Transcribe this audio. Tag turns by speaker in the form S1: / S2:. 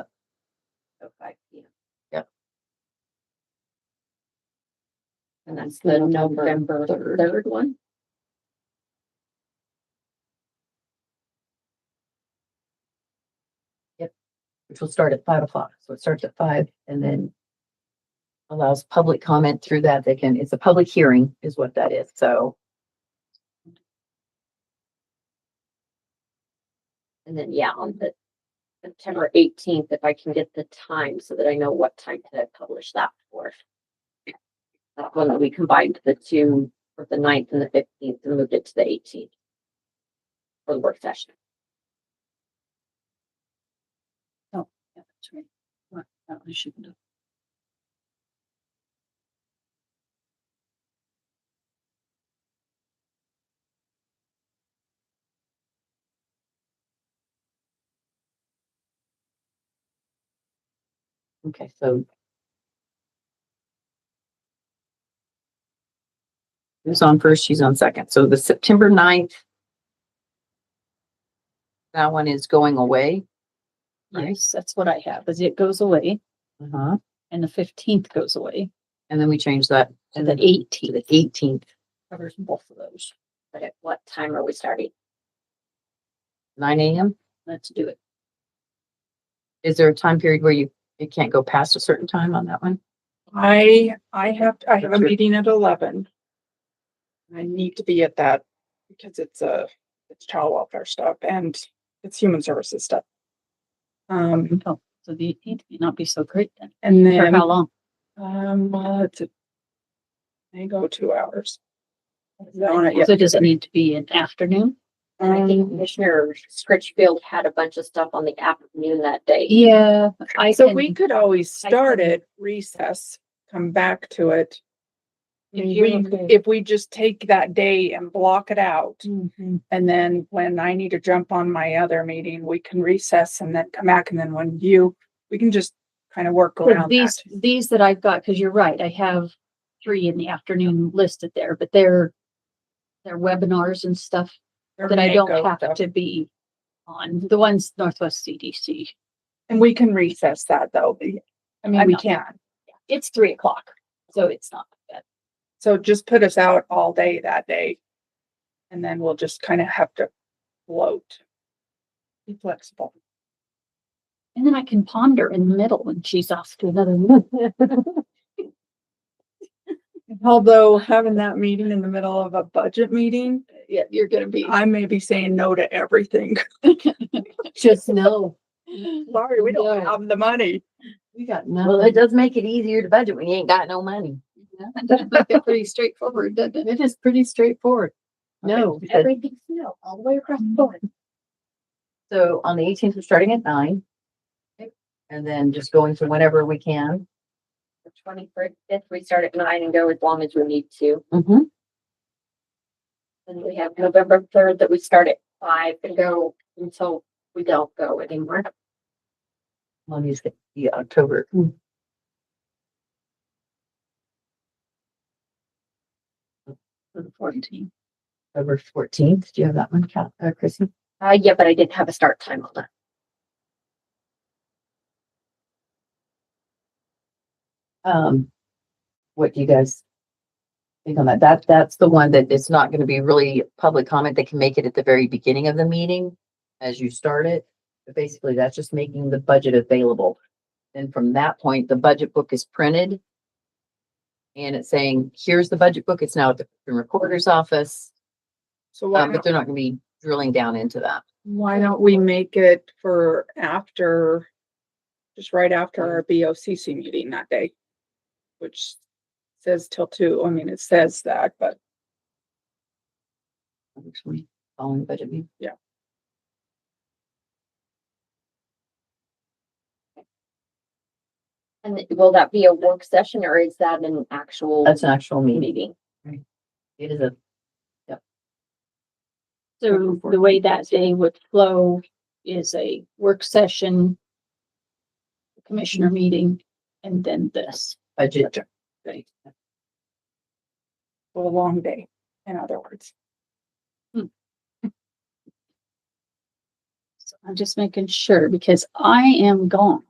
S1: oh, five P M.
S2: Yep.
S1: And that's the November third one?
S2: which will start at five o'clock. So it starts at five and then allows public comment through that. They can, it's a public hearing is what that is. So
S1: And then, yeah, on the September eighteenth, if I can get the time so that I know what time to publish that for. That one that we combined the two for the ninth and the fifteenth and moved it to the eighteenth. For the work session.
S3: Oh, Yeah, that's right. What, that one I shouldn't have.
S2: Okay, so. Who's on first? She's on second. So the September 9th. That one is going away. Right.
S3: Yes, that's what I have, is it goes away
S2: Uh-huh.
S3: and the fifteenth goes away.
S2: And then we change that to
S3: And the
S2: the
S3: eighteenth
S2: eighteenth,
S3: covers both of those.
S1: But at what time are we starting?
S2: nine AM.
S3: Let's do it.
S2: Is there a time period where you, it can't go past a certain time on that one?
S4: I, I have, I have a
S2: That's it.
S4: meeting at eleven. I need to be at that because it's a, it's child welfare stuff and it's human services stuff. Um,
S3: Oh, so the eighteenth may not be so great then.
S4: and
S3: For
S4: then,
S3: how long?
S4: um, well, it's a, they go two hours. Yeah.
S3: So does it need to be an afternoon?
S1: I think
S4: Um,
S1: Commissioner Scritchfield had a bunch of stuff on the afternoon that day.
S3: Yeah, I
S4: So we could always
S1: I
S4: start
S1: can-
S4: it, recess, come back to it.
S3: If
S4: We,
S3: you're okay.
S4: if we just take that day and block it out.
S3: Mm-hmm.
S4: And then when I need to jump on my other meeting, we can recess and then come back. And then when you, we can just kind of work around that.
S3: These, these that I've got, because you're right, I have three in the afternoon listed there, but they're they're webinars and stuff
S4: Or
S3: that I
S4: may
S3: don't
S4: go, though.
S3: have to be on. The ones Northwest CDC.
S4: And we can recess that though. I mean,
S3: I'm
S4: we
S3: not-
S4: can.
S3: It's three o'clock, so it's not bad.
S4: So just put us out all day that day. And then we'll just kind of have to float. Be flexible.
S3: And then I can ponder in the middle when she's off to another one.
S4: Although having that meeting in the middle of a budget meeting,
S3: Yeah, you're gonna be.
S4: I may be saying no to everything.
S2: Just no.
S4: Sorry, we don't
S2: No.
S4: have the money.
S2: We got
S1: Well,
S2: no.
S1: it does make it easier to budget when you ain't got no money.
S3: Pretty straightforward, doesn't it?
S2: It is pretty straightforward. No. because-
S1: Everything's no, all the way across the board.
S2: So on the eighteenth, we're starting at nine. And then just going to whenever we can.
S1: The twenty-fifth, we start at nine and go as long as we need to.
S2: Mm-hmm.
S1: Then we have November third that we start at five and go until we don't go anymore.
S2: On these, the October.
S3: The fourteen.
S2: October fourteenth. Do you have that one, Cal, uh, Chrissy?
S1: Uh, yeah, but I didn't have a start time on that.
S2: Um, what do you guys think on that? That, that's the one that it's not gonna be really public comment. They can make it at the very beginning of the meeting as you start it. But basically, that's just making the budget available. Then from that point, the budget book is printed. And it's saying, here's the budget book. It's now at the recorder's office.
S4: So
S2: Uh,
S4: why
S2: but
S4: don't
S2: they're not gonna be drilling down into that.
S4: Why don't we make it for after, just right after our BOCC meeting that day? Which says till two, I mean, it says that, but
S2: Actually, following the budget meeting.
S4: Yeah.
S1: And th- will that be a work session or is that an actual
S2: That's an actual meeting.
S1: meeting?
S2: It is a,
S3: So the way that day would flow is a work session, commissioner meeting, and then this.
S2: budget.
S3: Right.
S4: a long day, in other words.
S3: So I'm just making sure because I am gone.